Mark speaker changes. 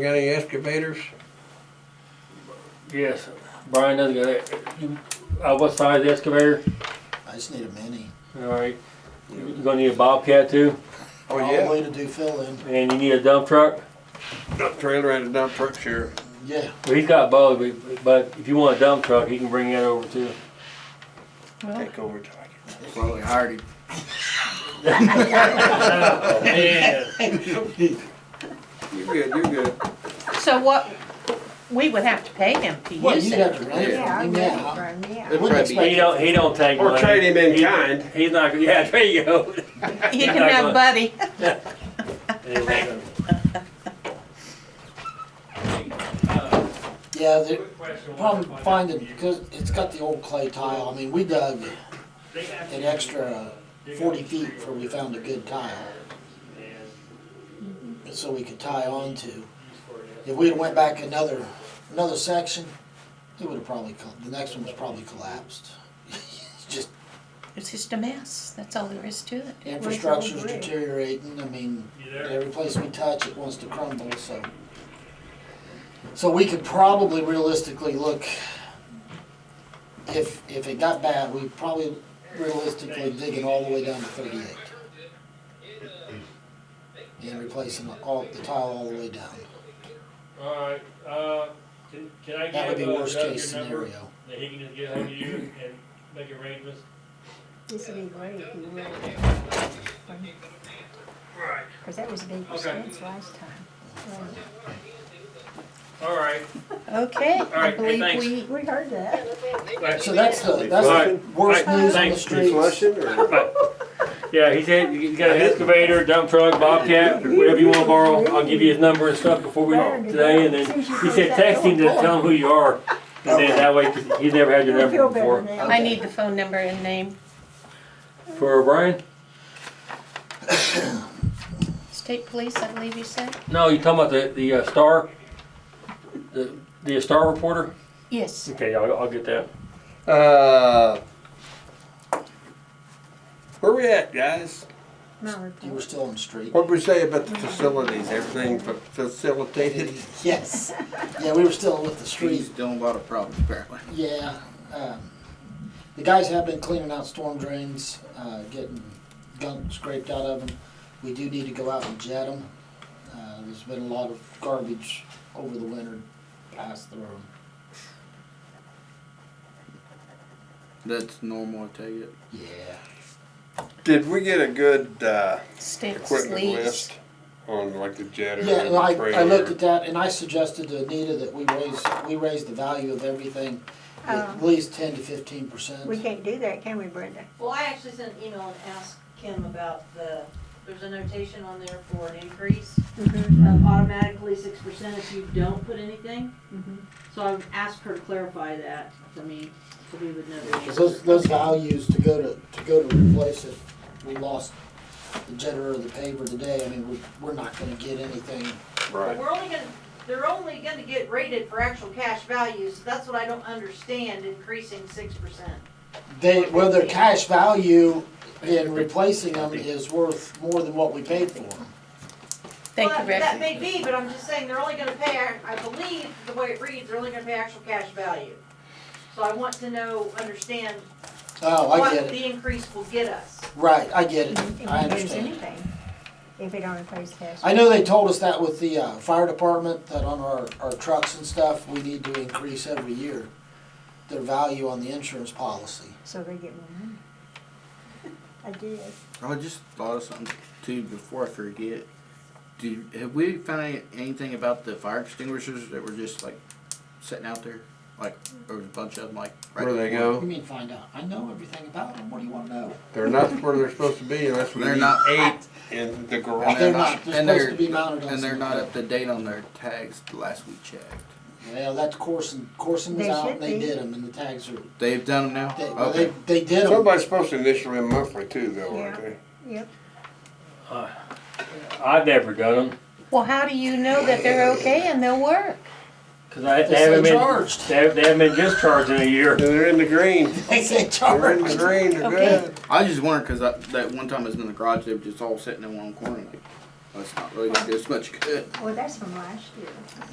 Speaker 1: Got any excavators?
Speaker 2: Yes, Brian does got it. You, uh, what size excavator?
Speaker 3: I just need a mini.
Speaker 2: All right. You're gonna need a bobcat too,
Speaker 1: Oh,
Speaker 3: All the
Speaker 1: yeah,
Speaker 3: way to do fill in.
Speaker 2: and you need a dump truck.
Speaker 1: dump trailer and a dump truck, sure.
Speaker 3: Yeah.
Speaker 2: Well, he's got both, but, but if you want a dump truck, he can bring that over too.
Speaker 1: Take over, Tiger.
Speaker 3: Probably hired him.
Speaker 1: You're good, you're good.
Speaker 4: So what, we would have to pay him to
Speaker 3: Well,
Speaker 4: use
Speaker 3: you'd have to
Speaker 4: it.
Speaker 3: rent it
Speaker 5: Yeah, I
Speaker 3: from him
Speaker 5: know,
Speaker 3: now.
Speaker 5: right,
Speaker 3: They
Speaker 5: yeah.
Speaker 3: wouldn't
Speaker 1: probably
Speaker 3: expect
Speaker 2: He don't. He don't take
Speaker 1: Or
Speaker 2: money.
Speaker 1: trade him in
Speaker 2: He-
Speaker 1: kind.
Speaker 2: He's not. gonna- Yeah, there you go.
Speaker 4: He can have Buddy.
Speaker 3: Yeah, the problem finding, because it's got the old clay tile. I mean, we dug an extra forty feet before we found a good tile. So we could tie on to. If we had went back another, another section, it would have probably, col- the next one was probably collapsed. Just
Speaker 4: It's just a mess. That's all there is to it.
Speaker 3: Infrastructure's deteriorating, I mean, every place we touch, it wants to crumble, so. So we could probably realistically look, if, if it got bad, we probably realistically dig it all the way down to thirty-eight. And replacing all, the tile all the way down,
Speaker 2: All right. Uh, can, can I uh,
Speaker 3: that would be worst case scenario.
Speaker 2: That he can just get hold of you and make arrangements.
Speaker 5: This would be great if you would.
Speaker 2: Right.
Speaker 5: Cause that was a big expense last time.
Speaker 2: All right.
Speaker 4: Okay, I
Speaker 2: right, hey,
Speaker 4: believe
Speaker 2: thanks.
Speaker 4: we,
Speaker 5: We heard that.
Speaker 3: So that's the, that's
Speaker 2: Alright,
Speaker 3: the worst
Speaker 2: alright,
Speaker 3: news on the
Speaker 2: thanks.
Speaker 3: streets.
Speaker 1: or?
Speaker 2: Yeah, he said he's got an excavator, dump truck, bobcat, whatever you wanna borrow. I'll give you his number and stuff before we, today, and then he said text him to tell him who you are. And then that way, 'cause he's never had your
Speaker 5: I feel
Speaker 2: number before.
Speaker 5: better now.
Speaker 4: I need the phone number and name.
Speaker 2: For Brian?
Speaker 4: State police, I believe you said?
Speaker 2: No, you talking about the, the uh, star? The, the star reporter?
Speaker 4: Yes.
Speaker 2: Okay, I'll, I'll get that.
Speaker 1: Uh, where we at, guys?
Speaker 5: My
Speaker 3: You
Speaker 5: report.
Speaker 3: were still on the street.
Speaker 1: What'd we say about the facilities, everything fa- facilitated?
Speaker 3: Yes, yeah, we were still with the street.
Speaker 6: He's doing a lot of problems apparently.
Speaker 3: Yeah, um, the guys have been cleaning out storm drains, uh, getting gunk scraped out of them. We do need to go out and jet them. Uh, there's been a lot of garbage over the winter passed through 'em.
Speaker 6: That's normal, I take it.
Speaker 3: Yeah.
Speaker 1: Did we get a good, uh,
Speaker 4: State
Speaker 1: equipment
Speaker 4: police.
Speaker 1: list on like the jetter
Speaker 3: Yeah,
Speaker 1: and
Speaker 3: and
Speaker 1: the
Speaker 3: I, I looked
Speaker 1: trailer?
Speaker 3: at that and I suggested to Anita that we raise, we raise the value of everything at
Speaker 5: Um,
Speaker 3: least ten to fifteen percent.
Speaker 5: We can't do that, can we Brenda?
Speaker 7: Well, I actually sent an email and asked Kim about the, there's a notation on there for an increase of automatically six percent if you don't put anything.
Speaker 4: Mm-hmm.
Speaker 5: Mhm.
Speaker 7: So I've asked her to clarify that for me, so we would know the
Speaker 3: Because
Speaker 7: answer.
Speaker 3: those, those values to go to, to go to replace it, we lost the jetter or the paver today, I mean, we, we're not gonna get anything.
Speaker 7: But
Speaker 1: Right,
Speaker 7: we're only gonna, they're only gonna get rated for actual cash values, that's what I don't understand, increasing six percent.
Speaker 3: They, well, their cash value in replacing them is worth more than what we paid for them.
Speaker 4: Thank
Speaker 7: Well,
Speaker 4: you,
Speaker 7: That
Speaker 4: Rick.
Speaker 7: may be, but I'm just saying, they're only gonna pay, ac- I believe, the way it reads, they're only gonna pay actual cash value. So I want to know, understand
Speaker 3: Oh, I
Speaker 7: what
Speaker 3: get it,
Speaker 7: the increase will get us.
Speaker 3: right, I get it,
Speaker 5: If
Speaker 3: I
Speaker 5: we lose
Speaker 3: understand.
Speaker 5: anything, if we don't replace cash.
Speaker 3: I know they told us that with the, uh, fire department, that on our, our trucks and stuff, we need to increase every year their value on the insurance policy.
Speaker 5: So they get more money. I did.
Speaker 6: I just thought of something too before I forget. Do have we found any- anything about the fire extinguishers that were just like sitting out there? Like there was a bunch of them like
Speaker 1: where they
Speaker 3: You
Speaker 1: go,
Speaker 3: mean find out, I know everything about them, what do you wanna know?
Speaker 1: they're not where they're supposed to be unless we
Speaker 6: They're
Speaker 1: need
Speaker 6: not-
Speaker 1: eight in the
Speaker 6: And
Speaker 1: garage.
Speaker 3: They're
Speaker 6: they're
Speaker 3: not.
Speaker 6: not
Speaker 3: They're supposed
Speaker 6: and they're
Speaker 3: to be mounted on
Speaker 6: and they're not
Speaker 3: something.
Speaker 6: up to date on their tags the last we checked.
Speaker 3: Well, that's Corson. Corson was
Speaker 5: They
Speaker 3: out
Speaker 5: should
Speaker 3: and they
Speaker 5: be.
Speaker 3: did them, and the tags are.
Speaker 6: They've done them now?
Speaker 3: They, well,
Speaker 6: okay.
Speaker 3: they, they did them.
Speaker 1: Somebody's supposed to initial them monthly too though, aren't they?
Speaker 5: Yep.
Speaker 2: I've never done them,
Speaker 4: Well, how do you know that they're okay and they'll work?
Speaker 2: cause I,
Speaker 3: They
Speaker 2: they haven't
Speaker 3: say
Speaker 2: been,
Speaker 3: charged.
Speaker 2: they haven't, they haven't been discharged in a year.
Speaker 1: And they're in the green,
Speaker 3: They say
Speaker 1: they're in
Speaker 3: charge.
Speaker 1: the green, they're
Speaker 4: Okay.
Speaker 1: good.
Speaker 6: I was just wondered because that one time I was in the garage, they were just all sitting in one corner. Like,
Speaker 8: Well, it's not really gonna do us much good.
Speaker 6: Well, that's from last year.